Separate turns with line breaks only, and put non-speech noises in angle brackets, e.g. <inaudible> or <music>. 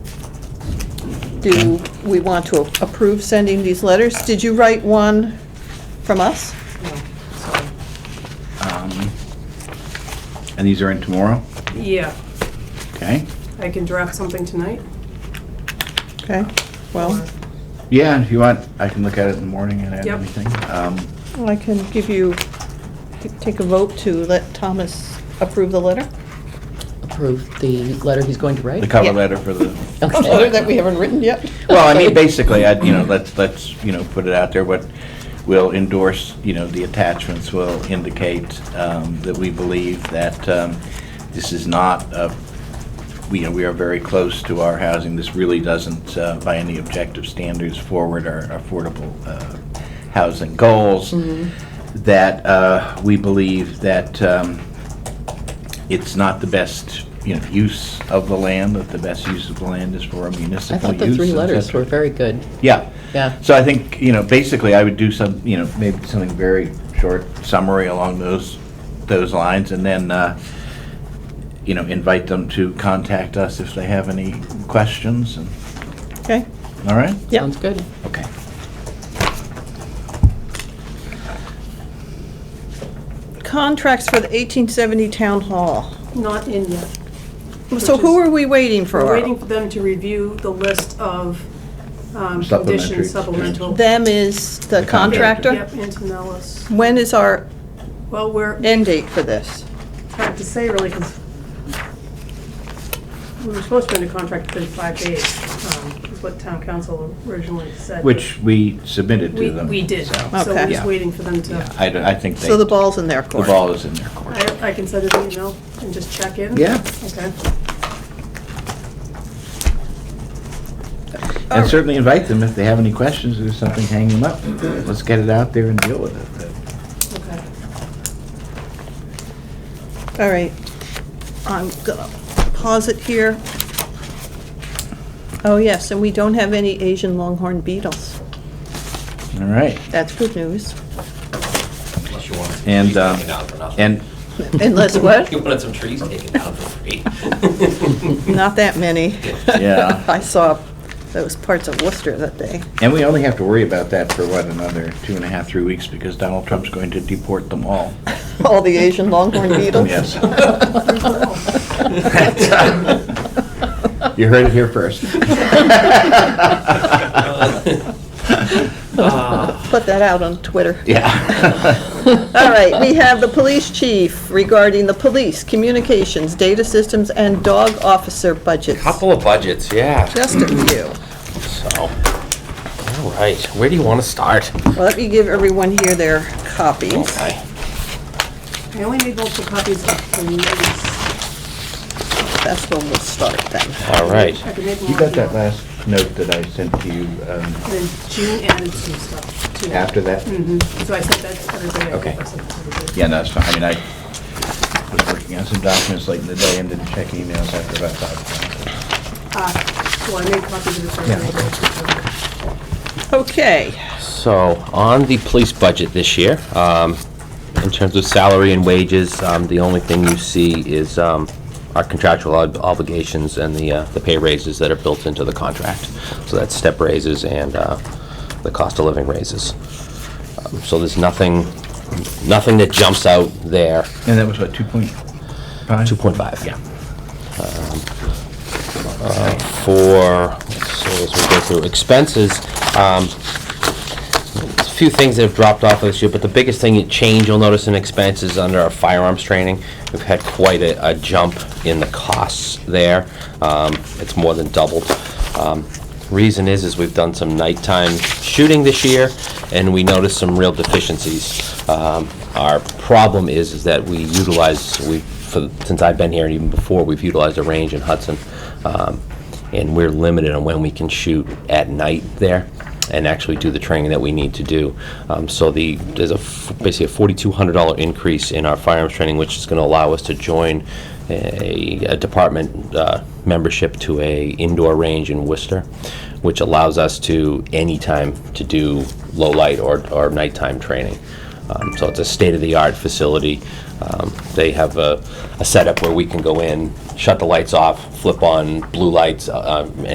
Do we want to approve sending these letters? Did you write one from us?
Um, And these are in tomorrow,
Yeah,
okay?
I can draft something tonight.
Okay, well,
Yeah, if you want, I can look at it in the morning and add
Yep.
anything. Um,
I can give you, take a vote to let Thomas approve the letter?
approve the letter he's going to
The
write?
cover
Yeah.
letter for the,
A <laughs> letter
Okay.
that we haven't written yet?
well, I mean, basically, I, you know, let's, let's, you know, put it out there, what will endorse, you know, the attachments will indicate um, that we believe that um, this is not a we, you know, we are very close to our housing. This really doesn't, uh, by any objective standards, forward our affordable uh, housing goals.
Mm-hmm.
That uh, we believe that um, it's not the best, you know, use of the land, that the best use of the land is for a
I
municipal
thought
use.
the three
et
letters
cetera.
were very good.
Yeah.
Yeah.
So I think, you know, basically, I would do some, you know, maybe something very short summary along those, those lines, and then, uh, you know, invite them to contact us if they have any questions, and,
Okay,
all right?
Yep.
Sounds good.
Okay.
contracts for the 1870 Town Hall.
Not in yet.
So who are we waiting for?
We're waiting for them to review the list of um,
Supplementary.
conditions, supplemental.
Them is the
The contractor.
contractor?
Yep, Antonellis.
When is our
Well, we're,
end date for this?
hard to say really, because we were supposed to be under contract within five days, um, is what town council originally said.
Which we submitted
We,
to them.
we did,
so,
so we're
Okay.
Yeah.
just waiting for them to,
yeah, I, don't- I think they,
So the
the
ball's in their court.
ball is in their court.
I, I can send it an email and just check in?
Yeah.
Okay.
And certainly invite them if they have any questions, or something, hang them up. Let's get it out there and deal with it.
Okay.
All right, I'm gonna pause it here. Oh, yes, and we don't have any Asian longhorn beetles.
All right.
That's good news.
Unless you wanted some
And,
trees
um,
taken down for nothing.
And
Unless what?
You wanted some trees taken down for free.
Not that many.
Yeah.
<laughs> I saw those parts of Worcester that day.
And we only have to worry about that for what, another two and a half, three weeks, because Donald Trump's going to deport them all.
All the Asian longhorn beetles.
<laughs> Yes. <laughs> You heard it here first.
<laughs> Put that out on Twitter.
<laughs> Yeah.
All right, we have the police chief regarding the police, communications, data systems, and dog officer budgets.
<laughs> Couple of budgets, yeah,
Just a few.
so. All right, where do you want to start?
Well, Let me give everyone here their copies.
Okay.
I only need multiple copies of the notice.
That's when we'll start then.
All right.
I can make more.
You got that
emails.
last note that I sent to you um,
And Then June added some stuff to it.
after that?
So I sent that to everybody. I
Okay.
think I sent it to everybody.
Yeah, no, it's fine. I mean, I was working on some documents late in the day and didn't check emails after about five o'clock.
Uh, Well, I made copies of the first.
Yeah.
one.
Okay,
So, on the police budget this year, um, in terms of salary and wages, um, the only thing you see is um, our contractual ob- obligations and the uh, the pay raises that are built into the contract. So that's step raises and uh, the cost of living raises. Um, So there's nothing, nothing that jumps out there,
And that was what, 2.5?
2.5.
Yeah.
Uh, for, so as we go through expenses, um, there's a few things that have dropped off this year, but the biggest thing, that change you'll notice in expenses under our firearms training. We've had quite a, a jump in the costs there. Um, it's more than doubled. Um, reason is, is we've done some nighttime shooting this year, and we noticed some real deficiencies. Um, our problem is, is that we utilize, we, for, since I've been here and even before, we've utilized a range in Hudson. Um, and we're limited on when we can shoot at night there and actually do the training that we need to do. Um, so the there's a f- basically a forty-two hundred dollar increase in our firearms training, which is going to allow us to join a, a department uh, membership to a indoor range in Worcester, which allows us to anytime to do low light or, or nighttime training. Um, So it's a state-of-the-art facility. Um, They have a a setup where we can go in, shut the lights off, flip on blue lights, uh, um,